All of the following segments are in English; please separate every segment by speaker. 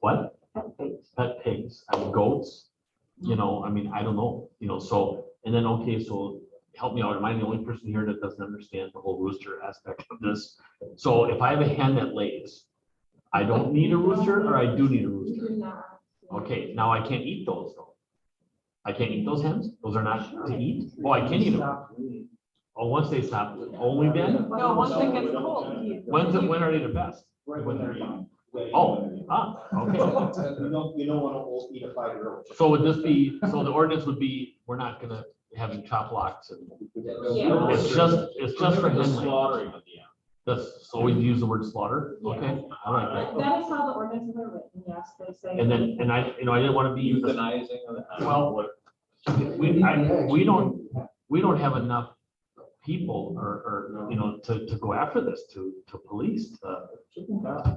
Speaker 1: What?
Speaker 2: Perfect.
Speaker 1: Pet pigs, I mean, goats, you know, I mean, I don't know, you know, so, and then, okay, so help me out, am I the only person here that doesn't understand the whole rooster aspect of this? So if I have a hen that lays, I don't need a rooster or I do need a
Speaker 2: You do
Speaker 1: rooster?
Speaker 2: not.
Speaker 1: Okay, now I can't eat those though. I can't eat those hens? Those are not to eat? Oh, I can eat them. Oh, once they stop, only then?
Speaker 2: No, once it gets cold. you-
Speaker 1: When's it,
Speaker 2: you-
Speaker 1: when are they the best?
Speaker 3: Right when they're young.
Speaker 1: Oh, Ah, okay.
Speaker 3: You don't, you don't wanna old- eat a five-year-old.
Speaker 1: So would this be, so the ordinance would be, we're not gonna have any chop locks and
Speaker 2: Yeah.
Speaker 1: it's just, it's just for
Speaker 4: Remember the
Speaker 1: hen laying.
Speaker 4: Slaughtering of the
Speaker 1: That's, so we use the word slaughter,
Speaker 2: Yeah.
Speaker 1: okay? I like that.
Speaker 2: That that is how the ordinances are written, yes, they say.
Speaker 1: And then, and I, you know, I didn't wanna be,
Speaker 4: animal. Euthanizing of the. animal,
Speaker 1: Well,
Speaker 4: what-
Speaker 1: we, I, we don't, we don't have enough people or, or, you know, to, to go after this, to, to police, to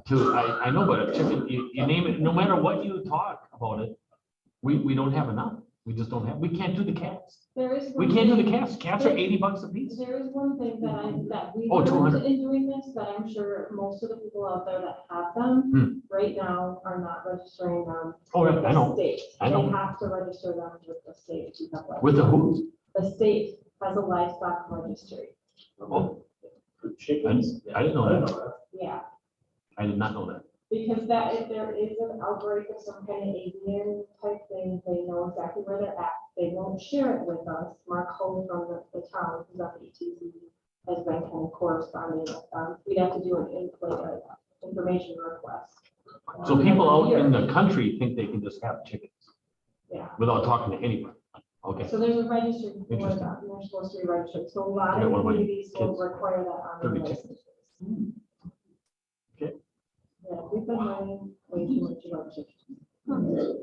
Speaker 1: to, I, I know, but a chicken, you, you name it, no matter what you talk about it, we, we don't have enough. We just don't have, we can't do the cats.
Speaker 2: There is.
Speaker 1: We
Speaker 2: one
Speaker 1: can't do
Speaker 2: thing-
Speaker 1: the cats. Cats are eighty bucks a piece.
Speaker 2: There is one thing that I, that we
Speaker 1: Oh,
Speaker 2: learned
Speaker 1: 200.
Speaker 2: in doing this, that I'm sure most of the people out there that have them right now are not registering them.
Speaker 1: Hmm. Oh,
Speaker 2: with
Speaker 1: yeah, I
Speaker 2: the
Speaker 1: know.
Speaker 2: state.
Speaker 1: I know.
Speaker 2: They have to register them with the state. to have that.
Speaker 1: With the who?
Speaker 2: The state has a livestock registry,
Speaker 1: Oh, I didn't know that.
Speaker 2: yeah.
Speaker 1: I did not know that.
Speaker 2: Because that, if there is an outbreak of some kind of avian type thing, they know exactly where they're at. They won't share it with us. Mark Hole from the, the town, who's at the ETC, has been kind of corresponding with them. We'd have to do an input, like, information request.
Speaker 1: So people out in the country think they can just have chickens
Speaker 2: Yeah,
Speaker 1: without talking to anybody. Okay,
Speaker 2: so there's a registry for that,
Speaker 1: Interesting.
Speaker 2: and they're supposed to be registered. So a lot
Speaker 1: I got
Speaker 2: of
Speaker 1: one of my
Speaker 2: communities will
Speaker 1: kids.
Speaker 2: require that on
Speaker 1: Thirty
Speaker 2: their
Speaker 1: chickens.
Speaker 2: licenses.
Speaker 1: Okay.
Speaker 2: Yeah, we've been running way too much about chickens.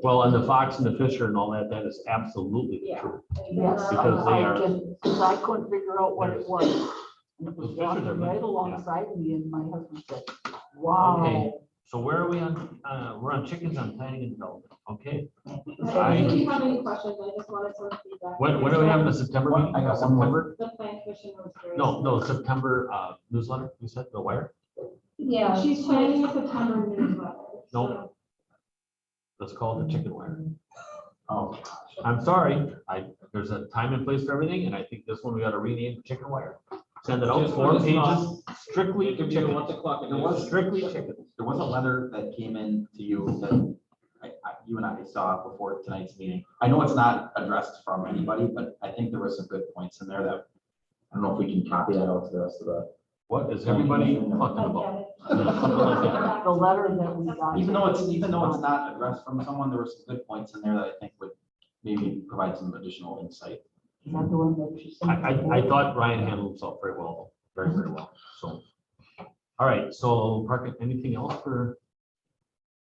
Speaker 1: well, and the fox and the fisher and all that, that is absolutely
Speaker 2: Yeah.
Speaker 1: true.
Speaker 5: Yes,
Speaker 1: Because they
Speaker 5: I
Speaker 1: are-
Speaker 5: just, because I couldn't figure out what it was. And it was
Speaker 1: Those pictures
Speaker 5: walking
Speaker 1: are nice,
Speaker 5: right
Speaker 1: yeah.
Speaker 5: alongside me and my husband said, wow.
Speaker 1: So where are we on, uh, we're on chickens on planning and development, okay?
Speaker 2: I- If you have any questions, I just wanted some feedback.
Speaker 1: What, what do we have in the September meeting?
Speaker 3: I got one
Speaker 1: September?
Speaker 3: more.
Speaker 2: The plan commission was very.
Speaker 1: No, no, September, uh, newsletter, you said, the wire?
Speaker 2: Yeah, Uh, she's planning a September newsletter.
Speaker 1: No.
Speaker 2: so-
Speaker 1: Let's call it the chicken wire.
Speaker 3: Oh.
Speaker 1: I'm sorry, I, there's a time and place for everything, and I think this one we gotta rename chicken wire. Send it out,
Speaker 4: Just
Speaker 1: four
Speaker 4: put it in the
Speaker 1: pages, strictly
Speaker 4: It could be the
Speaker 1: chicken,
Speaker 4: once o'clock and
Speaker 6: There
Speaker 4: it
Speaker 6: was-
Speaker 1: strictly chicken.
Speaker 6: There was a letter that came in to you that I, I, you and I saw before tonight's meeting. I know it's not addressed from anybody, but I think there were some good points in there that, I don't know if we can copy that out to the rest of the.
Speaker 1: What is everybody talking
Speaker 2: I
Speaker 1: about?
Speaker 2: get it.
Speaker 1: Yeah.
Speaker 5: The letter that we got.
Speaker 6: Even though it's, even though it's not addressed from someone, there were some good points in there that I think would maybe provide some additional insight.
Speaker 5: Is that the one that you sent?
Speaker 1: I, I, I thought Ryan handled himself very well, very, very well, so. All right, so Parker, anything else for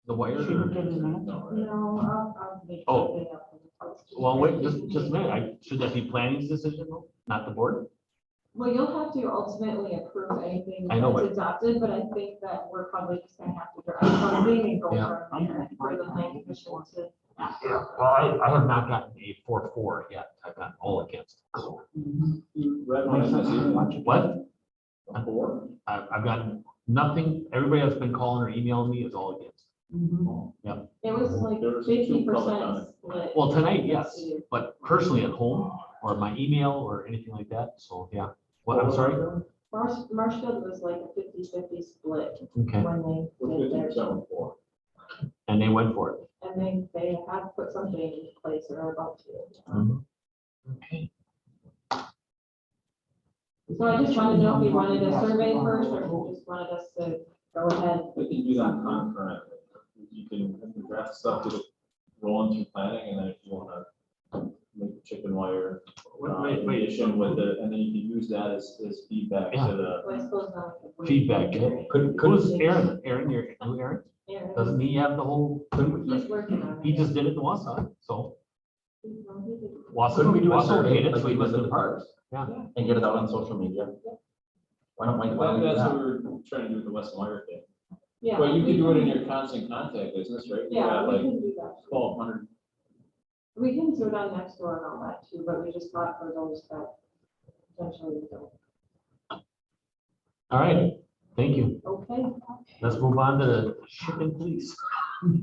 Speaker 1: the wire?
Speaker 5: She didn't get it, man.
Speaker 2: No, I'll, I'll make.
Speaker 1: Oh.
Speaker 2: something up and post it.
Speaker 1: Well, wait, just, just a minute, I, should that be planning's decision, though, not the board?
Speaker 2: Well, you'll have to ultimately approve anything
Speaker 1: I know,
Speaker 2: that's adopted, but I think that we're probably just gonna have to draft something and go
Speaker 1: Yeah.
Speaker 2: from there. For the plan commission to.
Speaker 1: Yeah, well, I, I have not gotten a four, four yet, I've gotten all against.
Speaker 5: Mhm.
Speaker 3: Red one, that's even-
Speaker 1: What?
Speaker 3: Four?
Speaker 1: I've, I've gotten nothing, everybody that's been calling or emailing me is all against.
Speaker 5: Mhm.
Speaker 2: It was like
Speaker 3: There was two
Speaker 2: fifty
Speaker 3: public on
Speaker 2: percent
Speaker 3: it.
Speaker 2: split.
Speaker 1: Well, tonight, yes, but personally at home, or my email, or anything like that, so, yeah. What, I'm sorry?
Speaker 2: Marsh, Marshfield was like a 50-50 split
Speaker 1: Okay,
Speaker 2: when they
Speaker 3: We're
Speaker 2: did
Speaker 3: fifty
Speaker 2: their,
Speaker 3: percent on four.
Speaker 1: and they went for it.
Speaker 2: and they, they have put something in place or are about to.
Speaker 6: Mm-hmm.
Speaker 1: Okay.
Speaker 2: So I just wanted to know if you wanted a survey first, or if
Speaker 5: Oh,
Speaker 2: you just wanted us to go ahead.
Speaker 3: We can do that concurrent. You can draft stuff to roll into planning and then if you wanna make chicken wire. uh,
Speaker 1: Wait, wait,
Speaker 3: addition With it, and then you can use that as, as feedback
Speaker 1: Yeah.
Speaker 3: to the.
Speaker 2: So I suppose not. if we-
Speaker 1: Feedback, yeah.
Speaker 2: Could-
Speaker 1: Who's Aaron? Aaron, your, who Aaron?
Speaker 2: Yeah,
Speaker 1: Doesn't he have the whole,
Speaker 2: He's working on it.
Speaker 1: he just did it in Wausau, so.
Speaker 2: He's- no, he didn't.
Speaker 1: Wausau,
Speaker 6: Couldn't we do a
Speaker 1: Wausau
Speaker 6: survey
Speaker 1: paid it,
Speaker 6: like
Speaker 1: so
Speaker 6: we
Speaker 1: he
Speaker 6: did
Speaker 1: must
Speaker 6: with the
Speaker 1: have.
Speaker 6: parks?
Speaker 1: Yeah.
Speaker 6: And get it out on social media? Why don't, why
Speaker 3: Well,
Speaker 6: don't we do
Speaker 3: that's what
Speaker 6: that?
Speaker 3: we were trying to do with the West Wire thing.
Speaker 2: Yeah.
Speaker 3: But you
Speaker 2: we
Speaker 3: can do it in your constant contact business, right? You
Speaker 2: Yeah,
Speaker 3: got
Speaker 2: we
Speaker 3: like
Speaker 2: can do that.
Speaker 3: twelve hundred
Speaker 2: We can do it on next door and all that too, but we just thought for those that potentially don't.
Speaker 1: All right, thank you.
Speaker 2: Okay.
Speaker 1: Let's move on to shipping, please.